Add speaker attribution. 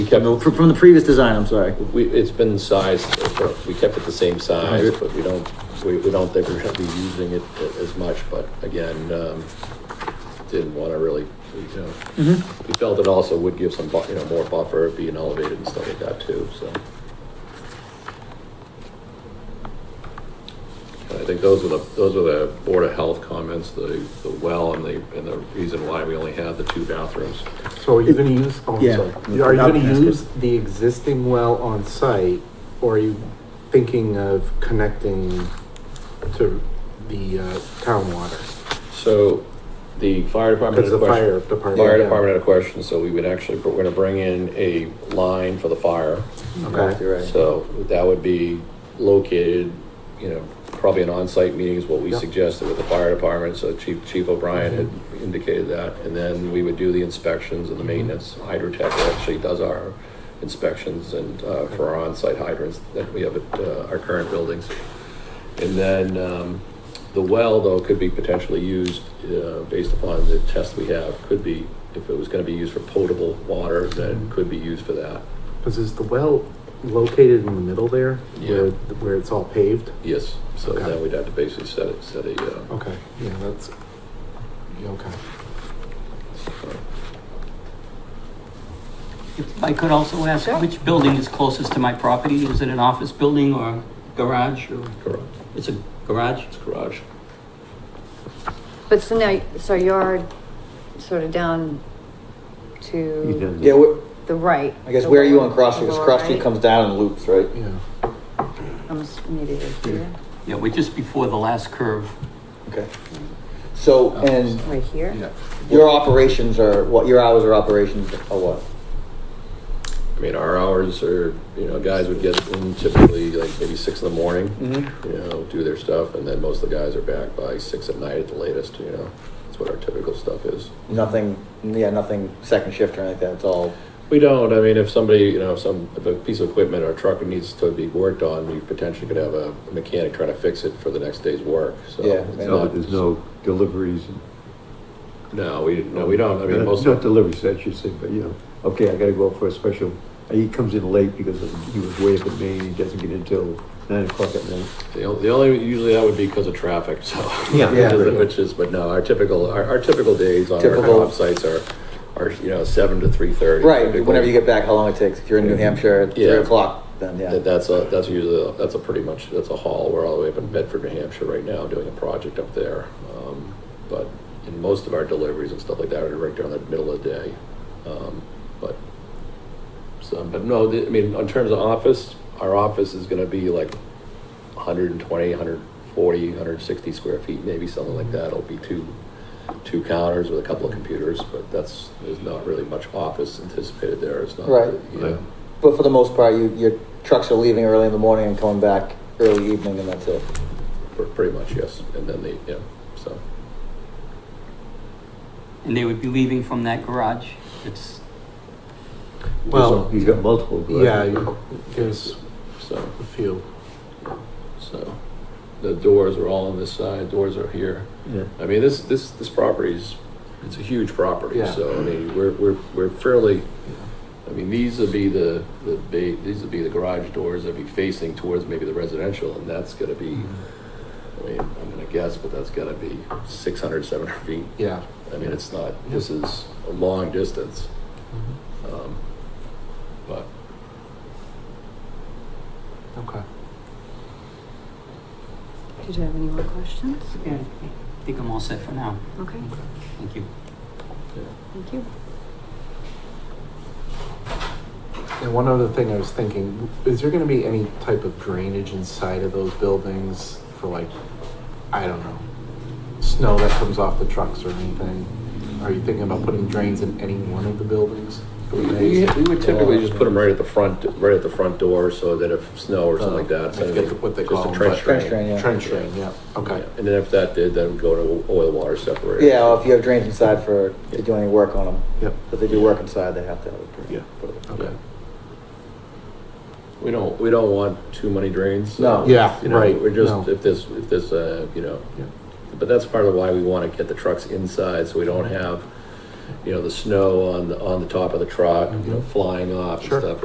Speaker 1: From the, from the previous design, I'm sorry.
Speaker 2: We, it's been sized, so we kept it the same size, but we don't, we, we don't think we're gonna be using it a- as much, but again, um, didn't wanna really, you know. We felt it also would give some, bu- you know, more buffer, being elevated and stuff like that too, so. And I think those are the, those are the Board of Health comments, the, the well and the, and the reason why we only have the two bathrooms.
Speaker 3: So are you gonna use, oh, I'm
Speaker 1: Yeah.
Speaker 3: sorry, are you
Speaker 1: No,
Speaker 3: gonna
Speaker 1: that's
Speaker 3: use the existing well on site? Or are you thinking of connecting to the, uh, town water?
Speaker 2: So the fire department.
Speaker 3: Cause
Speaker 2: had a
Speaker 3: the
Speaker 2: question.
Speaker 3: fire department.
Speaker 2: Fire
Speaker 3: yeah.
Speaker 2: department had a question, so we would actually, we're gonna bring in a line for the fire.
Speaker 3: Okay,
Speaker 2: So that would be located, you know, probably an on-site meeting is what we
Speaker 3: Yeah.
Speaker 2: suggested with the fire department, so Chief, Chief O'Brien had indicated that. And then we would do the inspections and the maintenance, Hydrotech actually does our inspections and, uh, for our on-site hydrants that we have at, uh, our current buildings. And then, um, the well though could be potentially used, uh, based upon the test we have, could be, if it was gonna be used for potable water, then could be used for that.
Speaker 3: cause is the well located in the middle there? Where,
Speaker 2: Yeah.
Speaker 3: where it's all paved?
Speaker 2: Yes, so
Speaker 3: Okay.
Speaker 2: then we'd have to basically set it, set a, uh,
Speaker 3: Okay, yeah, that's, yeah, okay.
Speaker 4: If I could also ask, which building is closest to my property? Is it an office building or garage or?
Speaker 2: garage,
Speaker 4: It's a garage?
Speaker 2: it's garage.
Speaker 5: But so now, so you're sort of down to
Speaker 1: Yeah, wh-
Speaker 5: the right.
Speaker 1: I guess
Speaker 5: the
Speaker 1: where are you
Speaker 5: lower-
Speaker 1: on Cross Street?
Speaker 5: the
Speaker 1: 'Cause
Speaker 5: lower
Speaker 1: Cross Street
Speaker 5: right.
Speaker 1: comes down and loops, right?
Speaker 3: Yeah,
Speaker 5: I'm just immediately here,
Speaker 4: Yeah, we're just before the last curve.
Speaker 1: Okay. So, and
Speaker 5: right here.
Speaker 1: your operations are, what, your hours of operations are what?
Speaker 2: I mean, our hours are, you know, guys would get in typically like maybe six in the morning,
Speaker 1: Mm-hmm.
Speaker 2: you know, do their stuff, and then most of the guys are back by six at night at the latest, you know? That's what our typical stuff is.
Speaker 1: Nothing, yeah, nothing second shift or anything like that, it's all,
Speaker 2: We don't, I mean, if somebody, you know, some, if a piece of equipment or truck needs to be worked on, we potentially could have a mechanic trying to fix it for the next day's work, so.
Speaker 1: Yeah,
Speaker 2: it's
Speaker 1: man.
Speaker 6: No,
Speaker 2: not-
Speaker 6: there's no deliveries.
Speaker 2: No, we, no, we don't, I mean,
Speaker 6: Not-
Speaker 2: most.
Speaker 6: Not deliveries, I should say, but you know, okay, I gotta go out for a special, he comes in late because of- he was way up in Maine, he doesn't get in till nine o'clock at night.
Speaker 2: The only, the only, usually that would be because of traffic, so.
Speaker 6: Yeah.
Speaker 1: Yeah.
Speaker 2: Which is- Which is, but no, our typical, our, our typical days on our
Speaker 1: Typical.
Speaker 2: job sites are, are, you know, seven to three thirty.
Speaker 1: right, whenever you get back, how long it takes, if you're in New Hampshire, at three
Speaker 2: Yeah.
Speaker 1: o'clock, then, yeah.
Speaker 2: That's a, that's usually, that's a pretty much, that's a haul, we're all the way up in Bedford, New Hampshire right now, doing a project up there. Um, But, in most of our deliveries and stuff like that are right during the middle of the day. Um, But, so, but no, the- I mean, in terms of office, our office is gonna be like 120, 140, 160 square feet, maybe something like that. It'll be two, two counters with a couple of computers, but that's, there's not really much office anticipated there. It's not.
Speaker 1: Right.
Speaker 2: you know.
Speaker 1: But for the most part, you, your trucks are leaving early in the morning and coming back early evening, and that's it.
Speaker 2: Pr- Pretty much, yes. And then they, yeah, so,
Speaker 4: And they would be leaving from that garage. It's,
Speaker 3: Well-
Speaker 6: He's got multiple. garages.
Speaker 3: yeah, you- there's
Speaker 2: so,
Speaker 3: a few.
Speaker 2: so. The doors are all on this side, doors are here.
Speaker 6: Yeah.
Speaker 2: I mean, this, this, this property's, it's a huge property,
Speaker 3: Yeah.
Speaker 2: so, I mean, we're, we're, we're fairly, I mean, these would be the, the, ba- these would be the garage doors that'd be facing towards maybe the residential, and that's gonna be, I mean, I'm gonna guess, but that's gotta be six hundred, seven hundred feet.
Speaker 3: Yeah.
Speaker 2: I mean, it's not, this is a long distance,
Speaker 3: Mm-hmm.
Speaker 2: um, but
Speaker 3: Okay.
Speaker 5: Did you have any more questions?
Speaker 4: yeah, I think I'm all set for now.
Speaker 5: Okay,
Speaker 4: Thank you.
Speaker 5: thank you.
Speaker 3: And one other thing I was thinking, is there gonna be any type of drainage inside of those buildings for like, I don't know, snow that comes off the trucks or anything? Are you thinking about putting drains in any one of the buildings?
Speaker 2: We we would typically just put them right at the front, right at the front door, so that if snow or something like that.
Speaker 3: I
Speaker 2: so
Speaker 3: forget Uh, what they
Speaker 2: just a
Speaker 3: call 'em,
Speaker 2: trench
Speaker 3: but-
Speaker 1: Trench
Speaker 2: drain.
Speaker 1: drain, yeah.
Speaker 3: Trench drain, yeah, okay.
Speaker 2: And then if that did, then go to oil water separator.
Speaker 1: Yeah, well, if you have drains inside for, to do any work on them,
Speaker 3: Yep.
Speaker 1: if they do work inside, they have to have a drain.
Speaker 3: Okay.
Speaker 2: We don't, we don't want too many drains. so,
Speaker 1: No.
Speaker 3: Yeah,
Speaker 2: you know,
Speaker 3: right,
Speaker 2: We're just,
Speaker 3: no.
Speaker 2: if this, if this, uh, you know,
Speaker 3: Yeah.
Speaker 2: but that's part of why we want to get the trucks inside, so we don't have, you know, the snow on, the on the top of the truck, you know, flying off and
Speaker 3: Mm-hmm. Sure.
Speaker 2: stuff,